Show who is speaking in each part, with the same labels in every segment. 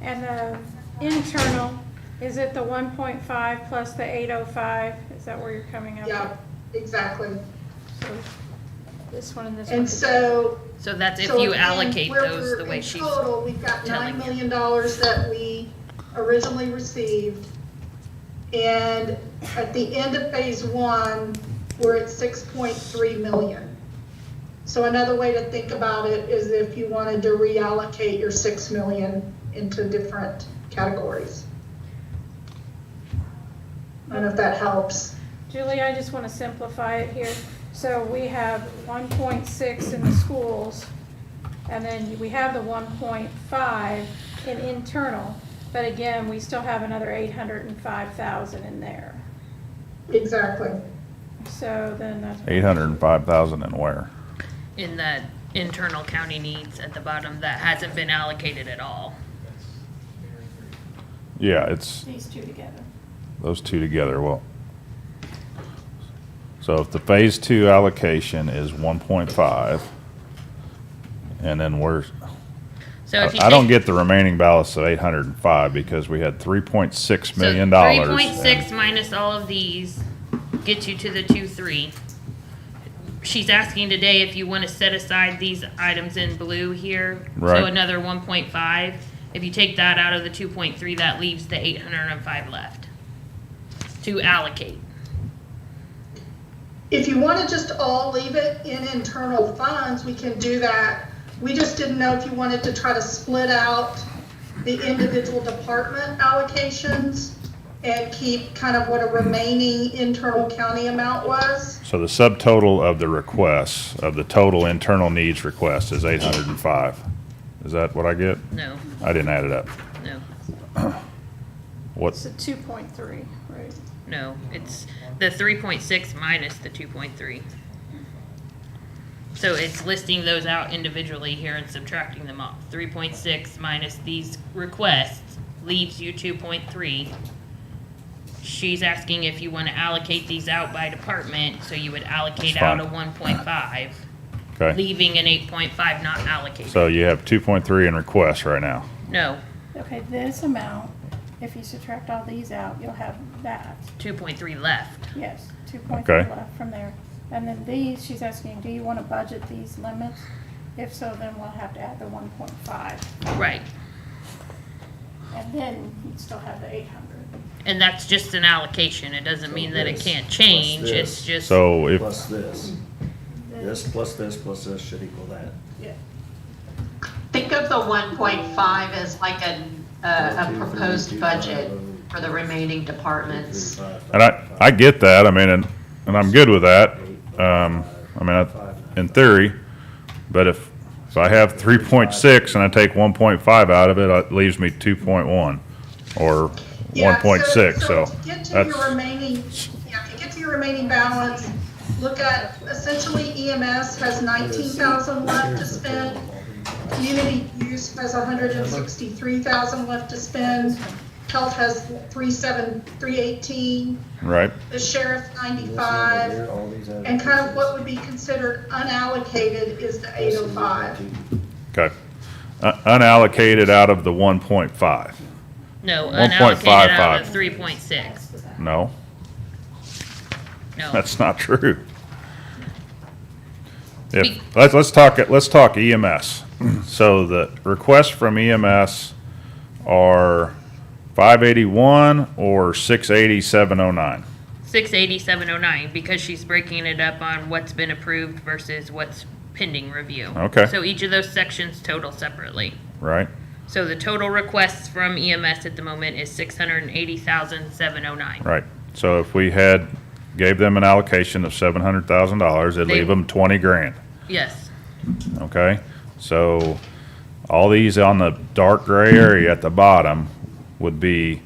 Speaker 1: And the internal, is it the one point five plus the eight oh five? Is that where you're coming up?
Speaker 2: Yeah, exactly.
Speaker 1: with? So This one and this one.
Speaker 2: And so.
Speaker 3: So that's if
Speaker 2: so
Speaker 3: you
Speaker 2: again,
Speaker 3: allocate
Speaker 2: we're-
Speaker 3: those the way she's,
Speaker 2: In total, we've got nine
Speaker 3: telling you.
Speaker 2: million dollars that we originally received. And at the end of phase one, we're at six point three million. So another way to think about it is if you wanted to reallocate your six million into different categories. I don't know if that helps.
Speaker 1: Julie, I just want to simplify it here. So we have one point six in the schools, and then we have the one point five in internal. But again, we still have another eight hundred and five thousand in there.
Speaker 2: Exactly.
Speaker 1: So then that's.
Speaker 4: Eight hundred and five thousand and where?
Speaker 3: in the internal county needs at the bottom, that hasn't been allocated at all.
Speaker 4: Yeah, it's
Speaker 5: These two together.
Speaker 4: those two together, well. So if the phase two allocation is one point five, and then we're,
Speaker 3: So if you
Speaker 4: I I don't
Speaker 3: take-
Speaker 4: get the remaining balance of eight hundred and five because we had three point six
Speaker 3: so
Speaker 4: million dollars.
Speaker 3: Three point six minus all of these gets you to the two, three. She's asking today if you wanna set aside these items in blue here.
Speaker 4: Right.
Speaker 3: So another one point five. If you take that out of the two point three, that leaves the eight hundred and five left to allocate.
Speaker 2: If you want to just all leave it in internal funds, we can do that. We just didn't know if you wanted to try to split out the individual department allocations and keep kind of what a remaining internal county amount was.
Speaker 4: So the subtotal of the requests, of the total internal needs request is eight hundred and five. Is that what I get?
Speaker 3: No,
Speaker 4: I didn't add it up.
Speaker 3: no.
Speaker 4: What,
Speaker 1: It's a two point three, right?
Speaker 3: No, it's the three point six minus the two point three. So it's listing those out individually here and subtracting them off. Three point six minus these requests leaves you two point three. She's asking if you wanna allocate these out by department, so you would allocate
Speaker 4: That's
Speaker 3: out a
Speaker 4: fine.
Speaker 3: one point five,
Speaker 4: okay,
Speaker 3: leaving an eight point five not allocated.
Speaker 4: so you have two point three in requests right now.
Speaker 3: No,
Speaker 5: Okay, this amount, if you subtract all these out, you'll have that.
Speaker 3: two point three left.
Speaker 5: Yes, two point three
Speaker 4: Okay.
Speaker 5: left from there. And then these, she's asking, do you want to budget these limits? If so, then we'll have to add the one point five,
Speaker 3: Right,
Speaker 5: and then you'd still have the eight hundred.
Speaker 3: and that's just an allocation. It doesn't mean that it
Speaker 6: this
Speaker 3: can't
Speaker 6: plus
Speaker 3: change.
Speaker 6: this
Speaker 3: It's just.
Speaker 4: So if,
Speaker 6: Plus this, this plus this plus this should equal that.
Speaker 7: Think of the one point five as like a, a a proposed budget for the remaining departments.
Speaker 4: and I, I get that, I mean, and, and I'm good with that. Um, I mean, I- in theory, but if, if I have three point six and I take one point five out of it, it leaves me two point one or one
Speaker 2: Yeah,
Speaker 4: point six, so
Speaker 2: To get to
Speaker 4: that's,
Speaker 2: your remaining, yeah, to get to your remaining balance, look at essentially EMS has nineteen thousand left to spend. Community use has hundred and sixty-three thousand left to spend. Health has three seven, three eighteen,
Speaker 4: right,
Speaker 2: the sheriff ninety-five. And kind of what would be considered unallocated is the eight oh five.
Speaker 4: okay. Uh, Unallocated out of the one point five,
Speaker 3: No,
Speaker 4: 1.55.
Speaker 3: unallocated out of three point six.
Speaker 4: no,
Speaker 3: No,
Speaker 4: that's not true. If,
Speaker 3: Be-
Speaker 4: let's, let's talk, it- let's talk EMS. So the requests from EMS are five eighty-one or six eighty, seven oh nine.
Speaker 3: six eighty-seven oh nine, because she's breaking it up on what's been approved versus what's pending review.
Speaker 4: Okay.
Speaker 3: So each of those sections total separately.
Speaker 4: right?
Speaker 3: So the total requests from EMS at the moment is six hundred and eighty thousand seven oh nine.
Speaker 4: Right. So if we had, gave them an allocation of seven hundred thousand dollars, it'd
Speaker 3: They-
Speaker 4: leave them twenty grand,
Speaker 3: Yes,
Speaker 4: okay? So all these on the dark gray area at the bottom would be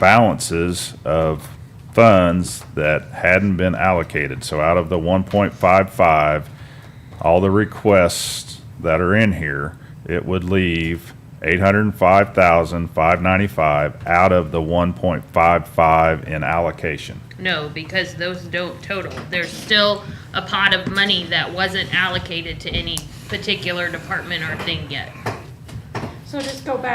Speaker 4: balances of funds that hadn't been allocated. So out of the one point five five, all the requests that are in here, it would leave eight hundred and five thousand, five ninety-five out of the one point five five in allocation.
Speaker 3: no, because those don't total. There's still a pot of money that wasn't allocated to any particular department or thing yet.
Speaker 1: So just go back